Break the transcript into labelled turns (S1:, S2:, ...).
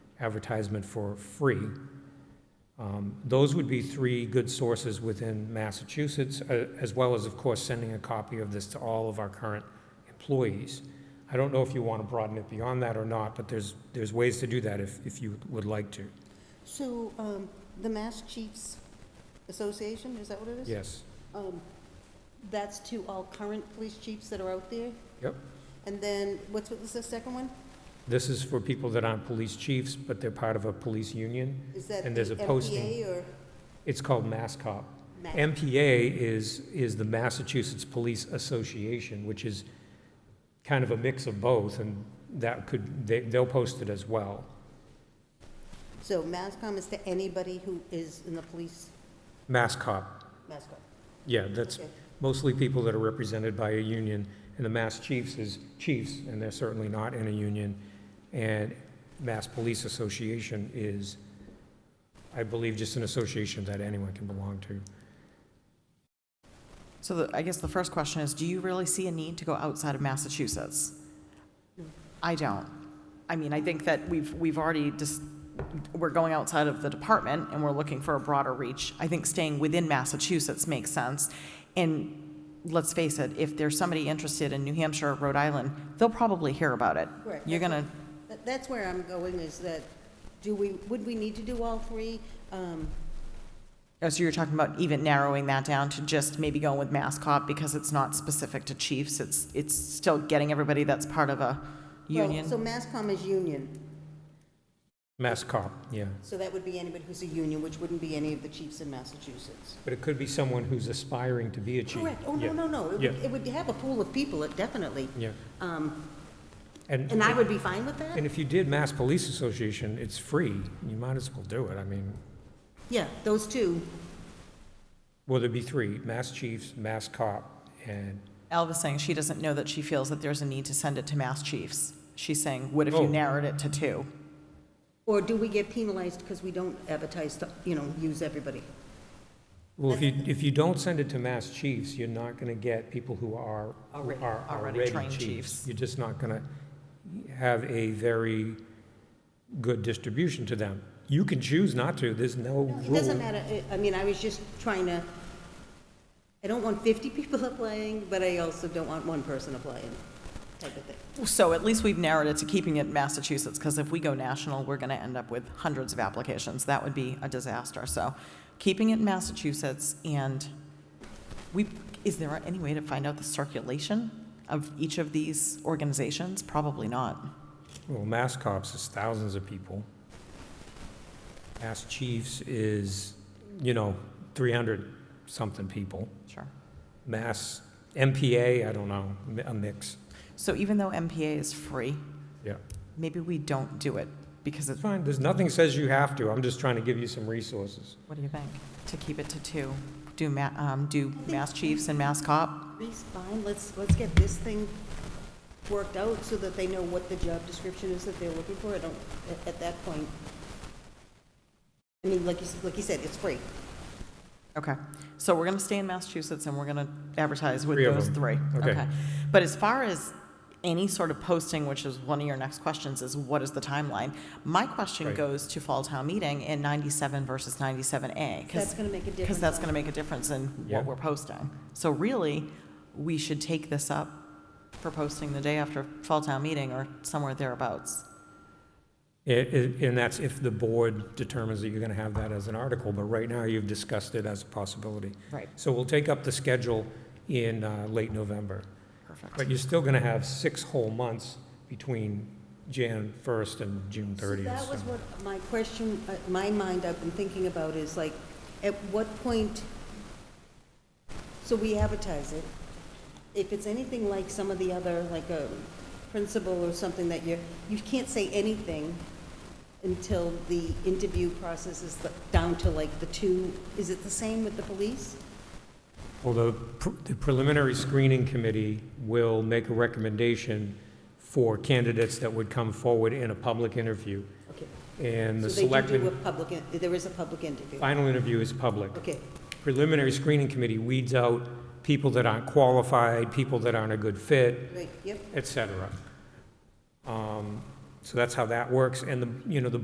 S1: advertisement for free. Um, Those would be three good sources within Massachusetts, a- as well as, of course, sending a copy of this to all of our current employees. I don't know if you want to broaden it beyond that or not, but there's, there's ways to do that if, if you would like to.
S2: So, um, the Mass Chiefs Association, is that what it is?
S1: Yes.
S2: Um, that's to all current police chiefs that are out there?
S1: Yep.
S2: And then, what's, what was the second one?
S1: This is for people that aren't police chiefs, but they're part of a police union.
S2: Is that
S1: And there's a
S2: the
S1: posting.
S2: MPA or?
S1: It's called Mass Cop.
S2: Ma-
S1: MPA is, is the Massachusetts Police Association, which is kind of a mix of both, and that could, they, they'll post it as well.
S2: So MASCOM is to anybody who is in the police,
S1: Mass Cop,
S2: MASCOM.
S1: yeah, that's
S2: Okay.
S1: mostly people that are represented by a union, and the Mass Chiefs is chiefs, and they're certainly not in a union. And Mass Police Association is, I believe, just an association that anyone can belong to.
S3: So the, I guess the first question is, do you really see a need to go outside of Massachusetts? I don't. I mean, I think that we've, we've already just, we're going outside of the department and we're looking for a broader reach. I think staying within Massachusetts makes sense. And let's face it, if there's somebody interested in New Hampshire or Rhode Island, they'll probably hear about it.
S2: Correct.
S3: You're gonna,
S2: That- That's where I'm going, is that, do we, would we need to do all three? Um,
S3: oh, so you're talking about even narrowing that down to just maybe going with MassCop because it's not specific to chiefs. It's, it's still getting everybody that's part of a
S2: well,
S3: union.
S2: So MASCOM is union,
S1: Mass Cop, yeah.
S2: so that would be anybody who's a union, which wouldn't be any of the chiefs in Massachusetts.
S1: But it could be someone who's aspiring to be a chief.
S2: Correct, oh, no,
S1: Yeah.
S2: no, no, it would,
S1: Yeah.
S2: it would have a pool of people, it definitely.
S1: Yeah.
S2: Um,
S1: And,
S2: and I would be fine with that?
S1: and if you did Mass Police Association, it's free. You might as well do it. I mean,
S2: Yeah, those two,
S1: well, there'd be three, Mass Chiefs, Mass Cop, and,
S3: Alva's saying she doesn't know that she feels that there's a need to send it to mass chiefs. She's saying, what if you
S1: Oh.
S3: narrowed it to two?
S2: or do we get penalized because we don't advertise, to, you know, use everybody?
S1: well, if you, if you don't send it to Mass Chiefs, you're not going to get people who are, who
S3: Already-
S1: are
S3: already
S1: already
S3: trained
S1: chiefs.
S3: chiefs.
S1: You're just not going to have a very good distribution to them. You can choose not to. There's no rule.
S2: It doesn't matter, I- I mean, I was just trying to, I don't want 50 people applying, but I also don't want one person applying, type of thing.
S3: So at least we've narrowed it to keeping it in Massachusetts, because if we go national, we're going to end up with hundreds of applications. That would be a disaster. So keeping it in Massachusetts, and we, is there any way to find out the circulation of each of these organizations? Probably not.
S1: Well, Mass Cops is thousands of people. Mass Chiefs is, you know, 300-something people.
S3: Sure.
S1: Mass MPA, I don't know, mi- a mix.
S3: So even though MPA is free,
S1: Yeah.
S3: maybe we don't do it, because it's,
S1: It's fine, there's nothing says you have to. I'm just trying to give you some resources.
S3: What do you think? To keep it to two? Do ma, um, do mass chiefs and mass cop?
S2: Reese, fine, let's, let's get this thing worked out so that they know what the job description is that they're looking for. I don't, at- at that point, I mean, like you, s- like you said, it's free.
S3: Okay. So we're gonna stay in Massachusetts and we're gonna advertise with
S1: Three of
S3: those
S1: them.
S3: three.
S1: Okay.
S3: But as far as any sort of posting, which is one of your next questions, is what is the timeline? My question
S1: Right.
S3: goes to fall town meeting in ninety-seven versus ninety-seven A.
S2: That's gonna make a
S3: Because
S2: difference
S3: that's
S2: on-
S3: gonna make a difference in
S1: Yeah.
S3: what we're posting. So really, we should take this up for posting the day after fall town meeting or somewhere thereabouts.
S1: I- i- And that's if the board determines that you're going to have that as an article, but right now you've discussed it as a possibility.
S3: Right.
S1: So we'll take up the schedule in uh, late November.
S3: Perfect.
S1: But you're still going to have six whole months between Jan 1st and June
S2: So
S1: 30th.
S2: That was
S1: so-
S2: what my question, uh, my mind I've been thinking about is like, at what point, so we advertise it. If it's anything like some of the other, like a principal or something that you're, you can't say anything until the interview process is the- down to like the two, is it the same with the police?
S1: Well, the pr- the preliminary screening committee will make a recommendation for candidates that would come forward in a public interview,
S2: Okay.
S1: and the
S2: So they do do a
S1: selectmen,
S2: public, in- there is a public interview.
S1: final interview is public.
S2: Okay,
S1: Preliminary screening committee weeds out people that aren't qualified, people that aren't a good fit,
S2: right, yep.
S1: et cetera. Um, So that's how that works, and the, you know, the